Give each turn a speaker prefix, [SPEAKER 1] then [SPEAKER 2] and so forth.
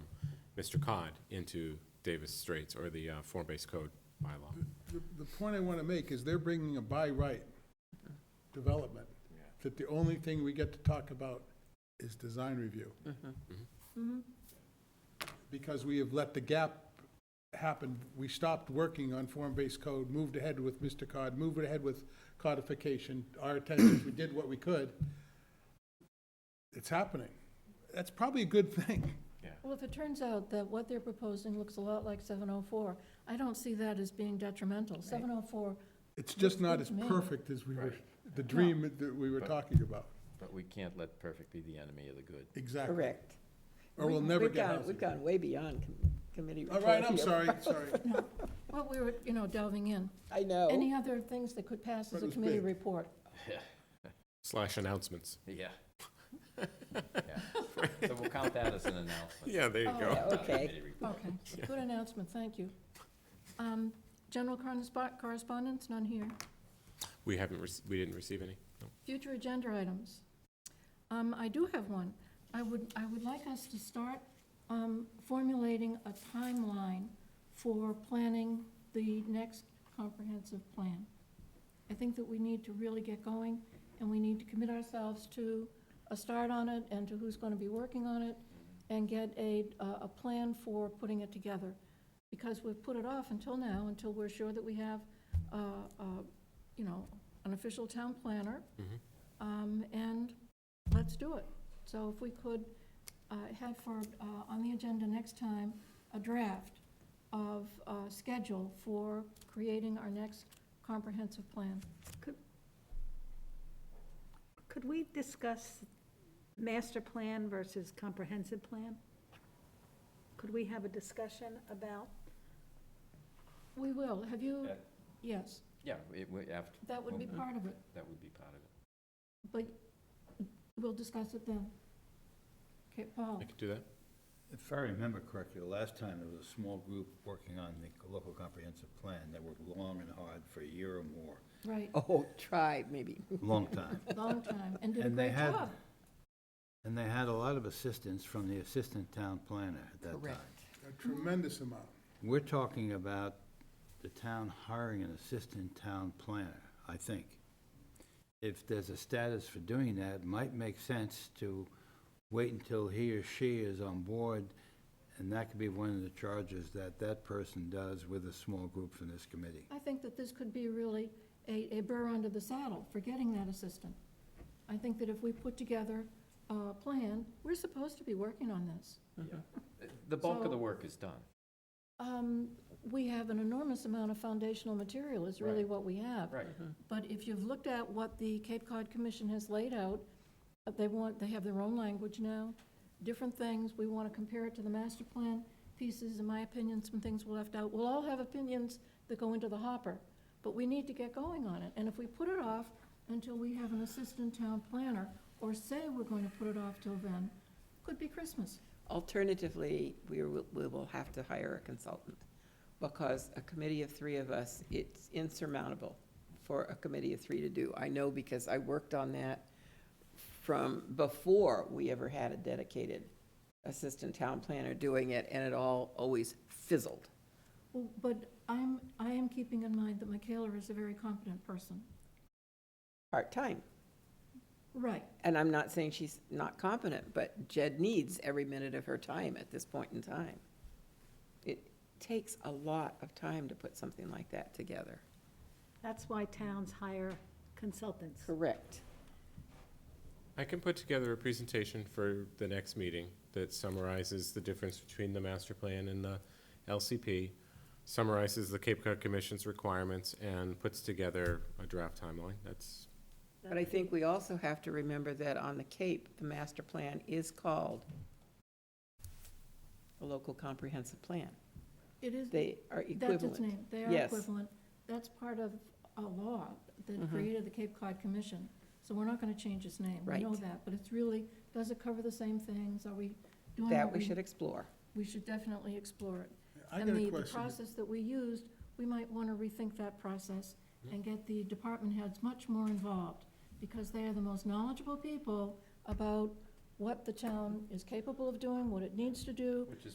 [SPEAKER 1] Mr. Cod into Davis Straits or the uh, form-based code bylaw.
[SPEAKER 2] The, the point I want to make is they're bringing a by right development, that the only thing we get to talk about is design review. Mm-hmm. Because we have let the gap happen, we stopped working on form-based code, moved ahead with Mr. Cod, moved ahead with codification, our attention, we did what we could. It's happening. That's probably a good thing.
[SPEAKER 3] Well, if it turns out that what they're proposing looks a lot like 704, I don't see that as being detrimental. 704,
[SPEAKER 2] It's just not as
[SPEAKER 3] Looks good to me.
[SPEAKER 2] perfect as we were, the dream that we were talking about.
[SPEAKER 4] But we can't let perfect be the enemy of the good.
[SPEAKER 2] Exactly.
[SPEAKER 5] Correct.
[SPEAKER 2] Or we'll
[SPEAKER 5] We've-
[SPEAKER 2] never
[SPEAKER 5] we've
[SPEAKER 2] get
[SPEAKER 5] gone-
[SPEAKER 2] housing.
[SPEAKER 5] We've gone way beyond com- committee
[SPEAKER 2] All
[SPEAKER 5] report.
[SPEAKER 2] right, I'm
[SPEAKER 5] here.
[SPEAKER 2] sorry, sorry.
[SPEAKER 3] well, we were, you know, delving in.
[SPEAKER 5] I know.
[SPEAKER 3] Any other things that could pass
[SPEAKER 2] But
[SPEAKER 3] as
[SPEAKER 2] it
[SPEAKER 3] a
[SPEAKER 2] was
[SPEAKER 3] committee
[SPEAKER 2] big.
[SPEAKER 3] report?
[SPEAKER 1] Slash announcements.
[SPEAKER 4] Yeah. So we'll count that as an announcement.
[SPEAKER 1] Yeah, there you
[SPEAKER 3] Oh,
[SPEAKER 1] go.
[SPEAKER 5] Yeah,
[SPEAKER 4] not a
[SPEAKER 5] Okay,
[SPEAKER 4] committee report.
[SPEAKER 3] Okay, good announcement, thank you. Um, General correspon- correspondence, none here.
[SPEAKER 1] We haven't, rec- we didn't receive any. No.
[SPEAKER 3] Future agenda items. Um, I do have one. I would, I would like us to start um, formulating a timeline for planning the next comprehensive plan. I think that we need to really get going, and we need to commit ourselves to a start on it, and to who's going to be working on it, and get a, a a plan for putting it together. Because we've put it off until now, until we're sure that we have, uh, uh, you know, an official town planner,
[SPEAKER 1] Mhm.
[SPEAKER 3] um, and let's do it. So if we could uh, have for, uh, on the agenda next time, a draft of uh, schedule for creating our next comprehensive plan.
[SPEAKER 6] Could we discuss master plan versus comprehensive plan? Could we have a discussion about,
[SPEAKER 3] We will, have you,
[SPEAKER 4] Yeah.
[SPEAKER 3] yes,
[SPEAKER 4] Yeah, it would, after,
[SPEAKER 3] that would be
[SPEAKER 4] Okay.
[SPEAKER 3] part of it,
[SPEAKER 4] that would be part of it.
[SPEAKER 3] but we'll discuss it then. Okay, Paul,
[SPEAKER 1] I could do that.
[SPEAKER 7] If I remember correctly, the last time there was a small group working on the local comprehensive plan that worked long and hard for a year or more,
[SPEAKER 3] right,
[SPEAKER 5] oh, try, maybe.
[SPEAKER 7] long time.
[SPEAKER 3] long time, and did a
[SPEAKER 7] And they
[SPEAKER 3] great
[SPEAKER 7] had-
[SPEAKER 3] job.
[SPEAKER 7] And they had a lot of assistance from the assistant town planner at that time.
[SPEAKER 5] Correct.
[SPEAKER 2] A tremendous amount.
[SPEAKER 7] We're talking about the town hiring an assistant town planner, I think. If there's a status for doing that, it might make sense to wait until he or she is on board, and that could be one of the charges that that person does with a small group from this committee.
[SPEAKER 3] I think that this could be really a, a burr under the saddle for getting that assistant. I think that if we put together a plan, we're supposed to be working on this.
[SPEAKER 4] The bulk of
[SPEAKER 3] So-
[SPEAKER 4] the work is done.
[SPEAKER 3] Um, we have an enormous amount of foundational material is really
[SPEAKER 4] Right.
[SPEAKER 3] what we have.
[SPEAKER 4] Right.
[SPEAKER 3] But if you've looked at what the Cape Cod Commission has laid out, uh, they want, they have their own language now, different things, we want to compare it to the master plan pieces, in my opinion, some things were left out. We'll all have opinions that go into the hopper, but we need to get going on it. And if we put it off until we have an assistant town planner, or say we're going to put it off till then, could be Christmas.
[SPEAKER 5] Alternatively, we will, we will have to hire a consultant, because a committee of three of us, it's insurmountable for a committee of three to do. I know because I worked on that from before we ever had a dedicated assistant town planner doing it, and it all always fizzled.
[SPEAKER 3] Well, but I'm, I am keeping in mind that Michaela is a very competent person.
[SPEAKER 5] part-time.
[SPEAKER 3] Right.
[SPEAKER 5] And I'm not saying she's not competent, but Jed needs every minute of her time at this point in time. It takes a lot of time to put something like that together.
[SPEAKER 6] that's why towns hire consultants.
[SPEAKER 5] Correct.
[SPEAKER 1] I can put together a presentation for the next meeting that summarizes the difference between the master plan and the LCP, summarizes the Cape Cod Commission's requirements, and puts together a draft timeline. That's,
[SPEAKER 5] But I think we also have to remember that on the Cape, the master plan is called the local comprehensive plan.
[SPEAKER 3] It is,
[SPEAKER 5] They are
[SPEAKER 3] that's its
[SPEAKER 5] equivalent.
[SPEAKER 3] name, they are
[SPEAKER 5] Yes.
[SPEAKER 3] equivalent. That's part of a law that
[SPEAKER 5] Mm-hmm.
[SPEAKER 3] created the Cape Cod Commission, so we're not gonna change its name. We know
[SPEAKER 5] Right.
[SPEAKER 3] that, but it's really, does it cover the same things? Are we doing
[SPEAKER 5] That
[SPEAKER 3] what
[SPEAKER 5] we should explore.
[SPEAKER 3] We should definitely explore it.
[SPEAKER 2] I got a
[SPEAKER 3] And the, the
[SPEAKER 2] question.
[SPEAKER 3] process that we used, we might want to rethink that process and get the department heads much more involved, because they are the most knowledgeable people about what the town is capable of doing, what it needs to do,
[SPEAKER 4] Which is